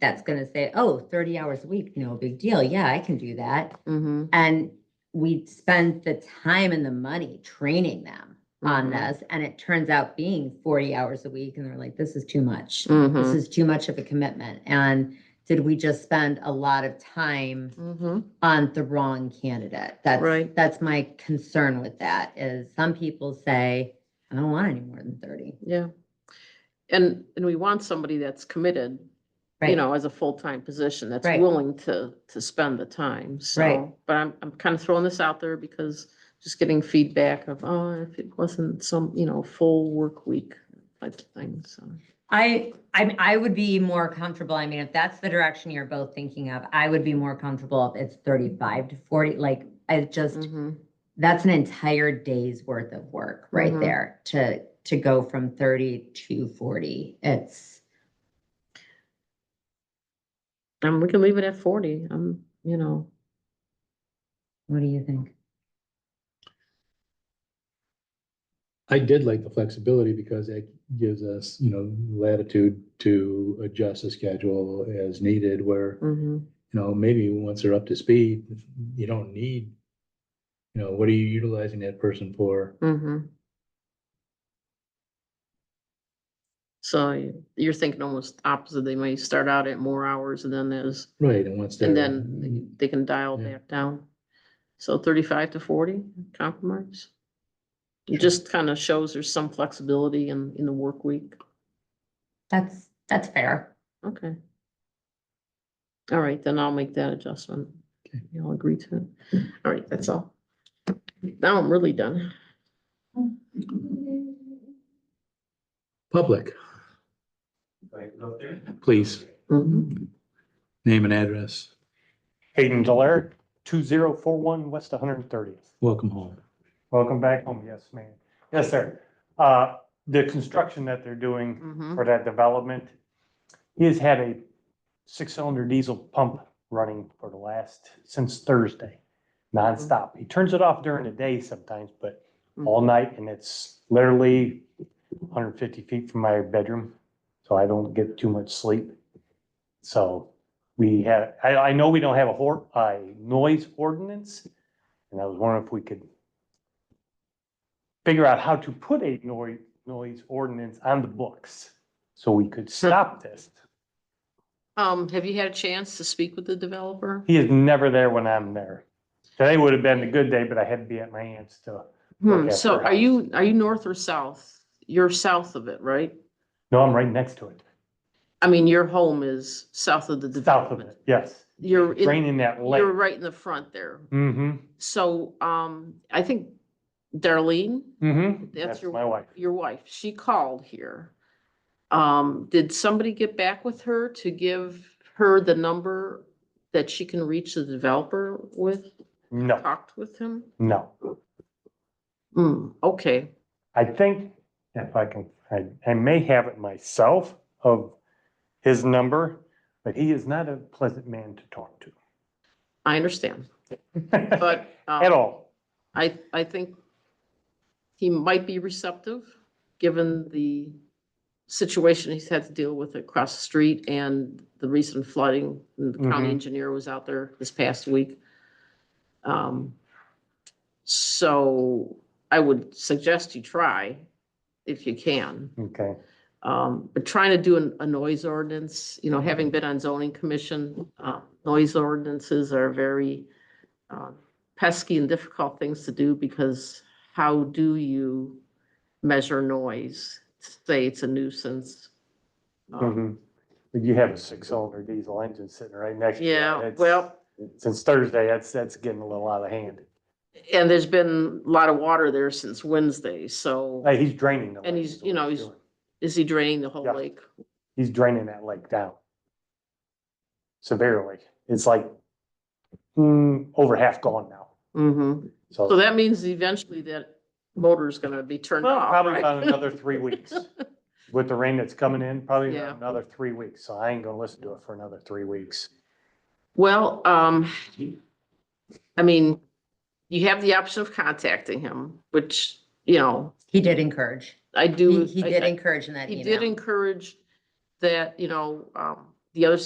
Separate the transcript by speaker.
Speaker 1: that's gonna say, oh, 30 hours a week, no big deal. Yeah, I can do that.
Speaker 2: Mhm,
Speaker 1: And we spend the time and the money training them on
Speaker 2: Mhm.
Speaker 1: this. And it turns out being 40 hours a week and they're like, this is too much. This
Speaker 2: mhm,
Speaker 1: is too much of a commitment. And did we just spend a lot of time
Speaker 2: mhm.
Speaker 1: on the wrong candidate? That's,
Speaker 2: Right.
Speaker 1: that's my concern with that is some people say, I don't want any more than 30.
Speaker 2: Yeah. And, and we want somebody that's committed, you
Speaker 1: Right.
Speaker 2: know, as a full-time position, that's
Speaker 1: Right.
Speaker 2: willing to, to spend the time,
Speaker 1: Right.
Speaker 2: so. But I'm, I'm kind of throwing this out there because just getting feedback of, oh, if it wasn't some, you know, full work week type of thing, so.
Speaker 1: I, I, mean, I would be more comfortable, I mean, if that's the direction you're both thinking of, I would be more comfortable if it's thirty-five to forty, like, I just,
Speaker 2: Mhm,
Speaker 1: that's an entire day's worth of work right
Speaker 2: Mhm.
Speaker 1: there to, to go from thirty to forty. It's,
Speaker 2: And we can leave it at forty, um, you know,
Speaker 1: what do you think?
Speaker 3: I did like the flexibility because it gives us, you know, latitude to adjust the schedule as needed where,
Speaker 1: Mm-hmm.
Speaker 2: mhm,
Speaker 3: you know, maybe once they're up to speed, you don't need, you know, what are you utilizing that person for?
Speaker 2: mhm. So you- you're thinking almost opposite, they may start out at more hours and then there's
Speaker 3: Right, and once they're.
Speaker 2: And then they- they can dial
Speaker 3: Yeah.
Speaker 2: back down. So thirty-five to forty compromise. It
Speaker 3: Sure.
Speaker 2: just kind of shows there's some flexibility in, in the work week.
Speaker 1: That's, that's fair.
Speaker 2: Okay. All right, then I'll make that adjustment.
Speaker 3: Okay.
Speaker 2: Y'all agree to it. All right, that's all. Now I'm really done.
Speaker 3: Public, please, name and address,
Speaker 4: Hayden Delaire, two zero four one West one hundred and thirtieth.
Speaker 3: welcome home.
Speaker 4: Welcome back home. Yes, ma'am. Yes, sir. Uh, the construction that they're doing
Speaker 2: Mhm.
Speaker 4: for that development, he has had a six-cylinder diesel pump running for the last, since Thursday, nonstop. He turns it off during the day sometimes, but all night, and it's literally hundred and fifty feet from my bedroom, so I don't get too much sleep. So we have, I, I know we don't have a hor, a noise ordinance, and I was wondering if we could figure out how to put a noise, noise ordinance on the books, so we could stop this.
Speaker 2: Um, have you had a chance to speak with the developer?
Speaker 4: He is never there when I'm there. Today would have been a good day, but I had to be at my aunt's to,
Speaker 2: Hmm,
Speaker 4: at
Speaker 2: so
Speaker 4: her
Speaker 2: are you, are you north or south? You're south of it, right?
Speaker 4: no, I'm right next to it,
Speaker 2: I mean, your home is south of the
Speaker 4: south of
Speaker 2: development.
Speaker 4: it, yes.
Speaker 2: You're,
Speaker 4: It's
Speaker 2: in-
Speaker 4: Draining that lake.
Speaker 2: you're right in the front there.
Speaker 4: Mm-hmm,
Speaker 2: So, um, I think Darlene,
Speaker 4: mm-hmm.
Speaker 2: That's your-
Speaker 4: My wife.
Speaker 2: your wife, she called here. Um, did somebody get back with her to give her the number that she can reach the developer with,
Speaker 4: No,
Speaker 2: talked with him?
Speaker 4: no.
Speaker 2: Hmm, okay,
Speaker 4: I think if I can, I, I may have it myself of his number, but he is not a pleasant man to talk to.
Speaker 2: I understand, but. um,
Speaker 4: At all.
Speaker 2: I, I think he might be receptive, given the situation he's had to deal with across the street and the recent flooding. And The county
Speaker 4: Mhm.
Speaker 2: engineer was out there this past week. Um, So I would suggest you try if you can.
Speaker 4: Okay,
Speaker 2: Um, but trying to do an- a noise ordinance, you know, having been on zoning commission, uh, noise ordinances are very uh, pesky and difficult things to do because how do you measure noise? Say it's a nuisance. Um,
Speaker 4: mhm. But you have a six-cylinder diesel engine sitting right next to you.
Speaker 2: Yeah,
Speaker 4: Mm-hmm. It's-
Speaker 2: well,
Speaker 4: Since Thursday, that's, that's getting a little out of hand.
Speaker 2: and there's been a lot of water there since Wednesday, so
Speaker 4: Hey, he's draining the lake.
Speaker 2: And he's,
Speaker 4: is
Speaker 2: you
Speaker 4: what
Speaker 2: know, he's-
Speaker 4: doing.
Speaker 2: is he draining the whole
Speaker 4: Yeah.
Speaker 2: lake?
Speaker 4: He's draining that lake down severely. It's like, mm, over half gone now.
Speaker 2: Mhm.
Speaker 4: So.
Speaker 2: So that means eventually that motor's gonna be turned
Speaker 4: Well,
Speaker 2: off,
Speaker 4: probably
Speaker 2: right?
Speaker 4: about another three weeks. With the rain that's coming in, probably
Speaker 2: Yeah.
Speaker 4: another three weeks. So I ain't gonna listen to it for another three weeks.
Speaker 2: Well, um, I mean, you have the option of contacting him, which, you know,
Speaker 1: He did encourage.
Speaker 2: I
Speaker 1: He,
Speaker 2: do.
Speaker 1: he
Speaker 2: I-
Speaker 1: did
Speaker 2: I-
Speaker 1: encourage in that
Speaker 2: He
Speaker 1: email.
Speaker 2: did encourage that, you know, um, the other